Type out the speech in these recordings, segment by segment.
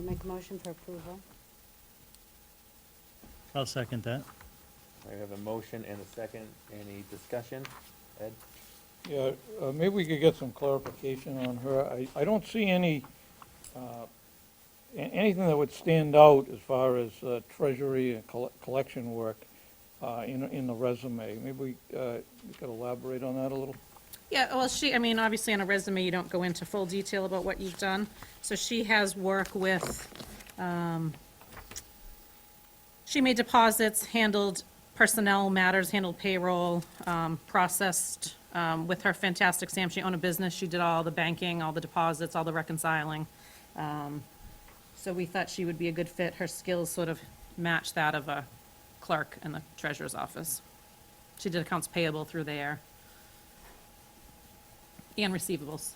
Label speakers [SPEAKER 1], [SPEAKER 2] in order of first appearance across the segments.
[SPEAKER 1] make a motion for approval.
[SPEAKER 2] I'll second that.
[SPEAKER 3] I have a motion and a second. Any discussion? Ed?
[SPEAKER 4] Yeah, uh, maybe we could get some clarification on her. I, I don't see any, uh, a- anything that would stand out as far as uh, treasury and colle- collection work uh, in, in the resume. Maybe we uh, you could elaborate on that a little?
[SPEAKER 5] Yeah, well, she, I mean, obviously on a resume, you don't go into full detail about what you've done. So she has work with, um, she made deposits, handled personnel matters, handled payroll, um, processed, um, with her fantastic Sam, she owned a business, she did all the banking, all the deposits, all the reconciling. Um, So we thought she would be a good fit. Her skills sort of match that of a clerk in the treasurer's office. She did accounts payable through there. And receivables.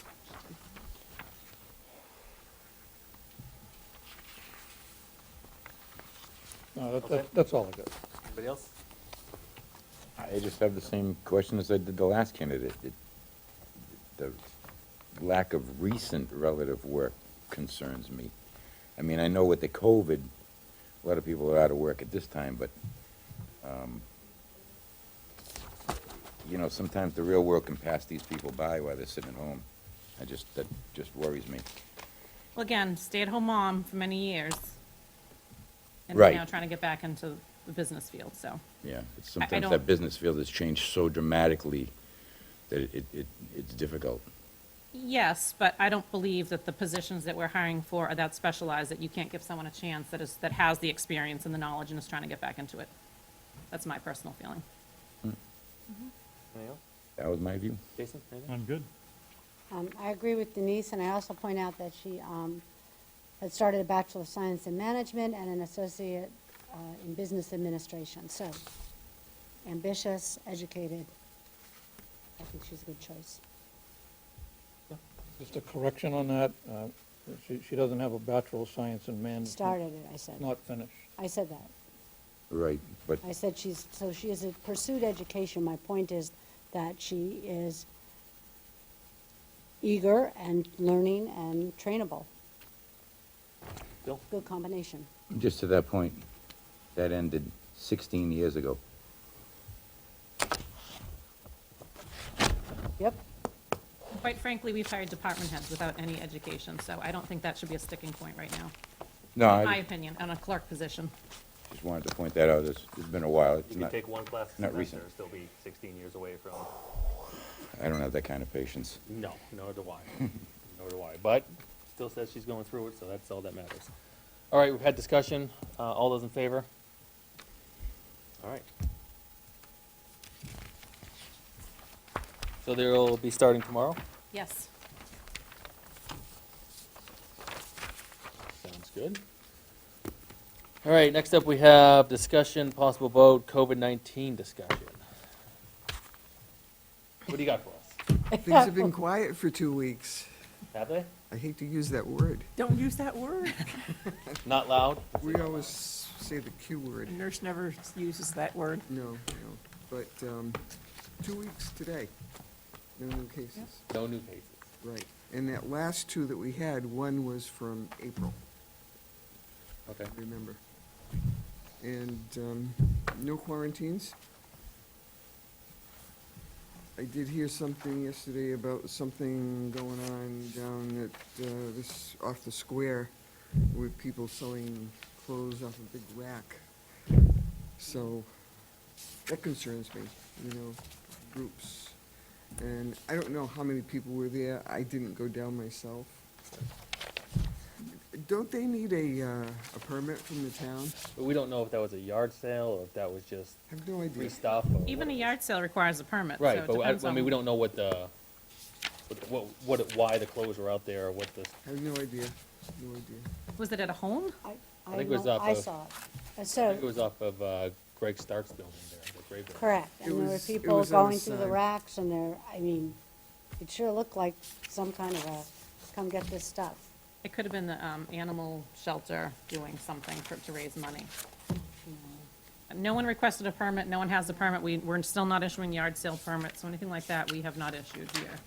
[SPEAKER 4] No, that-
[SPEAKER 3] Okay.
[SPEAKER 4] that, that's all I got.
[SPEAKER 3] Anybody else?
[SPEAKER 6] I just have the same question as I did the last candidate. It- The lack of recent relative work concerns me. I mean, I know with the COVID, a lot of people are out of work at this time, but, um, you know, sometimes the real world can pass these people by while they're sitting at home. I just, that just worries me.
[SPEAKER 5] Well, again, stay-at-home mom for many years. And
[SPEAKER 6] Right.
[SPEAKER 5] now trying to get back into the business field, so.
[SPEAKER 6] Yeah, but sometimes
[SPEAKER 5] don't-
[SPEAKER 6] that business field has changed so dramatically that it, it, it's difficult.
[SPEAKER 5] Yes, but I don't believe that the positions that we're hiring for are that specialized, that you can't give someone a chance that is, that has the experience and the knowledge and is trying to get back into it. That's my personal feeling.
[SPEAKER 3] Anything else?
[SPEAKER 6] That was my view.
[SPEAKER 3] Jason? anything?
[SPEAKER 2] I'm good.
[SPEAKER 1] Um, I agree with Denise, and I also point out that she um, had started a Bachelor of Science in Management and an Associate uh, in Business Administration, so ambitious, educated. I think she's a good choice.
[SPEAKER 4] Just a correction on that. uh, She, she doesn't have a Bachelor of Science in Management.
[SPEAKER 1] Started it, I said.
[SPEAKER 4] Not finished.
[SPEAKER 1] I said that.
[SPEAKER 6] Right, but
[SPEAKER 1] I said she's, so she has pursued education. My point is that she is eager and learning and trainable.
[SPEAKER 6] Mm.
[SPEAKER 3] Bill?
[SPEAKER 1] Good combination.
[SPEAKER 6] Just to that point, that ended 16 years ago.
[SPEAKER 1] Yep,
[SPEAKER 5] Quite frankly, we've hired department heads without any education, so I don't think that should be a sticking point right now,
[SPEAKER 6] No,
[SPEAKER 5] in my
[SPEAKER 6] I
[SPEAKER 5] opinion, on a clerk position.
[SPEAKER 6] just wanted to point that out. It's, it's been a while. It's
[SPEAKER 3] You can
[SPEAKER 6] not,
[SPEAKER 3] take one class a
[SPEAKER 6] not
[SPEAKER 3] semester,
[SPEAKER 6] recent.
[SPEAKER 3] still be sixteen years away from.
[SPEAKER 6] I don't have that kind of patience.
[SPEAKER 3] No, nor do I. Nor do I. But still says she's going through it, so that's all that matters. All right, we've had discussion. Uh, all those in favor? All right. So they'll be starting tomorrow?
[SPEAKER 5] Yes.
[SPEAKER 3] Sounds good. All right, next up we have discussion, possible vote, COVID-19 discussion. What do you got for us?
[SPEAKER 7] Things have been quiet for two weeks.
[SPEAKER 3] Have they?
[SPEAKER 7] I hate to use that word.
[SPEAKER 8] Don't use that word.
[SPEAKER 3] Not loud?
[SPEAKER 7] We always say the Q word.
[SPEAKER 8] A Nurse never uses that word.
[SPEAKER 7] No, no. But um, two weeks today, no new cases.
[SPEAKER 3] No new cases.
[SPEAKER 7] Right. And that last two that we had, one was from April,
[SPEAKER 3] Okay.
[SPEAKER 7] I remember. And um, no quarantines. I did hear something yesterday about something going on down at uh, this, off the square with people selling clothes off a big rack. So that concerns me, you know, groups. And I don't know how many people were there. I didn't go down myself. Don't they need a, uh, a permit from the town?
[SPEAKER 3] But we don't know if that was a yard sale or if that was just
[SPEAKER 7] I have no
[SPEAKER 3] free
[SPEAKER 7] idea.
[SPEAKER 3] stuff. or
[SPEAKER 5] Even a
[SPEAKER 3] what.
[SPEAKER 5] yard sale requires a permit, so
[SPEAKER 3] Right,
[SPEAKER 5] it
[SPEAKER 3] but
[SPEAKER 5] depends
[SPEAKER 3] I, I
[SPEAKER 5] on.
[SPEAKER 3] mean, we don't know what the, what- what, what, why the clothes were out there or what this,
[SPEAKER 7] I have no idea, no idea.
[SPEAKER 5] Was it at a home?
[SPEAKER 1] I,
[SPEAKER 3] I
[SPEAKER 1] I
[SPEAKER 3] think it was
[SPEAKER 1] know-
[SPEAKER 3] off
[SPEAKER 1] I
[SPEAKER 3] of-
[SPEAKER 1] saw it. Uh,
[SPEAKER 3] I think it
[SPEAKER 1] So,
[SPEAKER 3] was off of uh, Greg Stark's building there, the graveyard.
[SPEAKER 1] correct,
[SPEAKER 7] It
[SPEAKER 1] and there were
[SPEAKER 7] was- it
[SPEAKER 1] people
[SPEAKER 7] was on the
[SPEAKER 1] going through the
[SPEAKER 7] side.
[SPEAKER 1] racks and there, I mean, it sure looked like some kind of a, come get this stuff.
[SPEAKER 5] It could have been the um, animal shelter doing something for, to raise money. No one requested a permit, no one has a permit, we, we're still not issuing yard sale permits, so anything like that, we have not issued here.